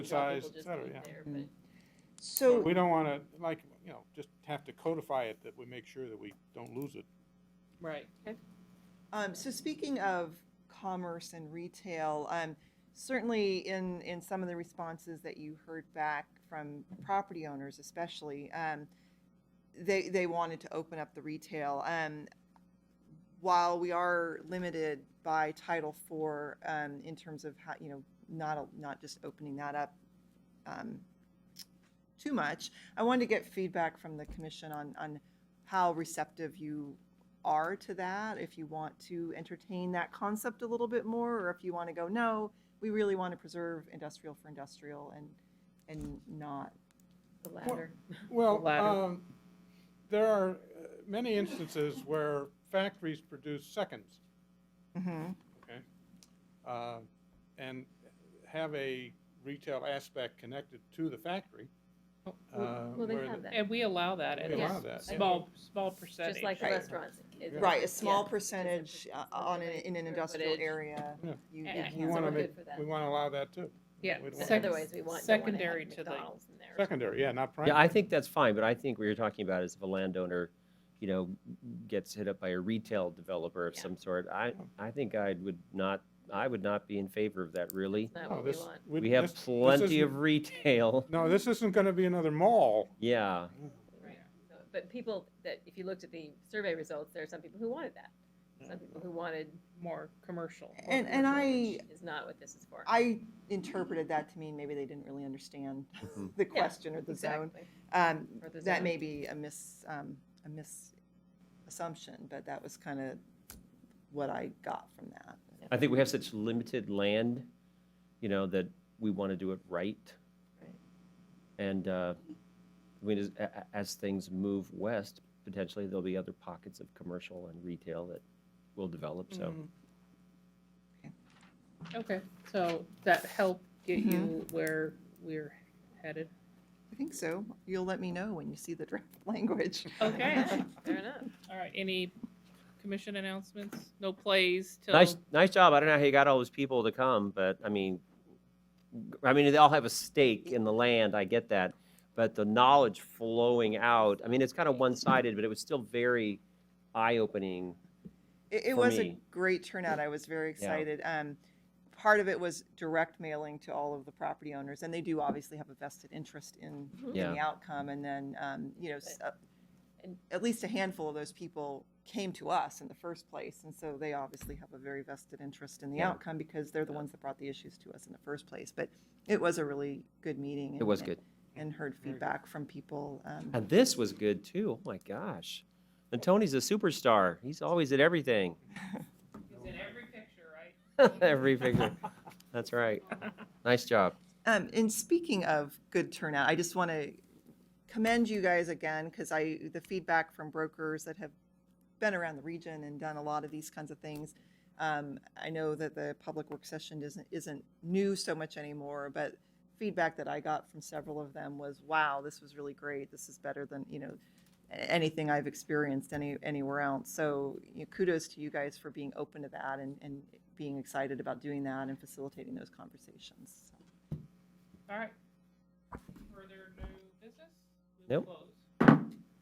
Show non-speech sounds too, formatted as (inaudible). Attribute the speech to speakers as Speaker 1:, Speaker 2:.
Speaker 1: Good
Speaker 2: job,
Speaker 1: size,
Speaker 2: people
Speaker 1: et
Speaker 2: just
Speaker 1: cetera,
Speaker 2: leave
Speaker 1: oh, yeah.
Speaker 2: there, but-
Speaker 1: But
Speaker 3: So,
Speaker 1: we don't want to, like, you know, just have to codify it that we make sure that we don't lose it.
Speaker 2: Right. Okay.
Speaker 3: um, so speaking of commerce and retail, um, certainly in, in some of the responses that you heard back from property owners especially, um, they, they wanted to open up the retail. Um, while we are limited by Title IV, um, in terms of how, you know, not, a- not just opening that up, um, too much, I wanted to get feedback from the commission on, on how receptive you are to that, if you want to entertain that concept a little bit more, or if you want to go, no, we really want to preserve industrial for industrial and, and not.
Speaker 2: The ladder.
Speaker 1: Well,
Speaker 2: latter.
Speaker 1: um, there are uh, many instances where factories produce seconds,
Speaker 3: Mhm.
Speaker 1: okay? uh, And have a retail aspect connected to the factory.
Speaker 4: Well,
Speaker 1: uh,
Speaker 5: Well, they
Speaker 1: where
Speaker 5: have
Speaker 1: the-
Speaker 5: that.
Speaker 4: And we allow that
Speaker 1: We
Speaker 4: at
Speaker 1: allow
Speaker 4: a
Speaker 1: that, yeah.
Speaker 4: small, small percentage.
Speaker 2: Just like the
Speaker 3: Right.
Speaker 2: restaurants. it-
Speaker 3: Right, a small
Speaker 2: yeah,
Speaker 3: percentage uh, on, an- in an industrial area.
Speaker 1: Yeah.
Speaker 3: you-
Speaker 4: Yeah,
Speaker 3: you
Speaker 1: We
Speaker 2: so
Speaker 3: can't-
Speaker 1: want to
Speaker 2: we're good
Speaker 1: make,
Speaker 2: for that.
Speaker 1: we want to allow that too.
Speaker 4: Yeah,
Speaker 1: We don't
Speaker 2: But
Speaker 1: want-
Speaker 2: Otherwise, we want, don't want to
Speaker 4: secondary
Speaker 2: have
Speaker 4: to the-
Speaker 2: McDonald's in there.
Speaker 1: Secondary, yeah, not primary.
Speaker 5: yeah, I think that's fine, but I think what you're talking about is if a landowner, you know, gets hit up by a retail developer of
Speaker 2: Yeah.
Speaker 5: some sort, I, I think I would not, I would not be in favor of that, really.
Speaker 2: It's not
Speaker 1: No,
Speaker 2: what we
Speaker 1: Oh, this-
Speaker 2: want.
Speaker 1: we-
Speaker 5: We have
Speaker 1: this- this
Speaker 5: plenty of
Speaker 1: isn't-
Speaker 5: retail,
Speaker 1: No, this isn't going to be another mall.
Speaker 5: yeah.
Speaker 2: Right. So, But people that, if you looked at the survey results, there are some people who wanted that. Some people who wanted,
Speaker 4: More commercial. more
Speaker 3: And, and I,
Speaker 2: which is not what this is for.
Speaker 3: I interpreted that to mean maybe they didn't really understand (laughs)
Speaker 5: Mhm.
Speaker 3: the question or the zone.
Speaker 2: Exactly.
Speaker 3: Um,
Speaker 2: Or the
Speaker 3: that
Speaker 2: zone.
Speaker 3: may be a mis, um, a misassumption, but that was kind of what I got from that.
Speaker 5: I think we have such limited land, you know, that we want to do it right.
Speaker 2: Right.
Speaker 5: And, uh, I mean, as, a- a- as things move west, potentially there'll be other pockets of commercial and retail that will develop, so.
Speaker 4: Okay, so that helped get
Speaker 3: Mhm.
Speaker 4: you where we're headed.
Speaker 3: I think so. You'll let me know when you see the draft (laughs) language.
Speaker 4: Okay.
Speaker 2: Fair enough.
Speaker 4: All right, any commission announcements? No plays till?
Speaker 5: Nice, nice job. I don't know how you got all those people to come, but I mean, g- I mean, they all have a stake in the land. I get that, but the knowledge flowing out. I mean, it's kind of one-sided, but it was still very eye-opening.
Speaker 3: (laughs) It, it
Speaker 5: For
Speaker 3: was a
Speaker 5: me.
Speaker 3: great turnout. I was very
Speaker 5: Yeah.
Speaker 3: excited. Um, part of it was direct mailing to all of the property owners, and they do obviously have a vested interest in, in
Speaker 5: Yeah.
Speaker 3: the outcome. And then, um, you know, s- uh,
Speaker 2: And-
Speaker 3: at least a handful of those people came to us in the first place, and so they obviously have a very vested interest in the
Speaker 5: Yeah.
Speaker 3: outcome because they're the ones that brought the issues to us in the first place. But it was a really good meeting.
Speaker 5: It
Speaker 3: and-
Speaker 5: was good,
Speaker 3: And heard
Speaker 1: Very good.
Speaker 3: feedback from people. Um,
Speaker 5: and this was good too. Oh my gosh, and Tony's a superstar. He's always at everything, (laughs)
Speaker 4: It's in every picture, right?
Speaker 5: every figure. That's right. Nice job.
Speaker 3: Um, and speaking of good turnout, I just want to commend you guys again because I the feedback from brokers that have been around the region and done a lot of these kinds of things. Um, I know that the public work session isn't isn't new so much anymore, but feedback that I got from several of them was, "Wow, this was really great. This is better than you know a- anything I've experienced any anywhere else." So you know, kudos to you guys for being open to that and and being excited about doing that and facilitating those conversations.
Speaker 4: All right. Further new business? We will
Speaker 5: Nope.
Speaker 4: close.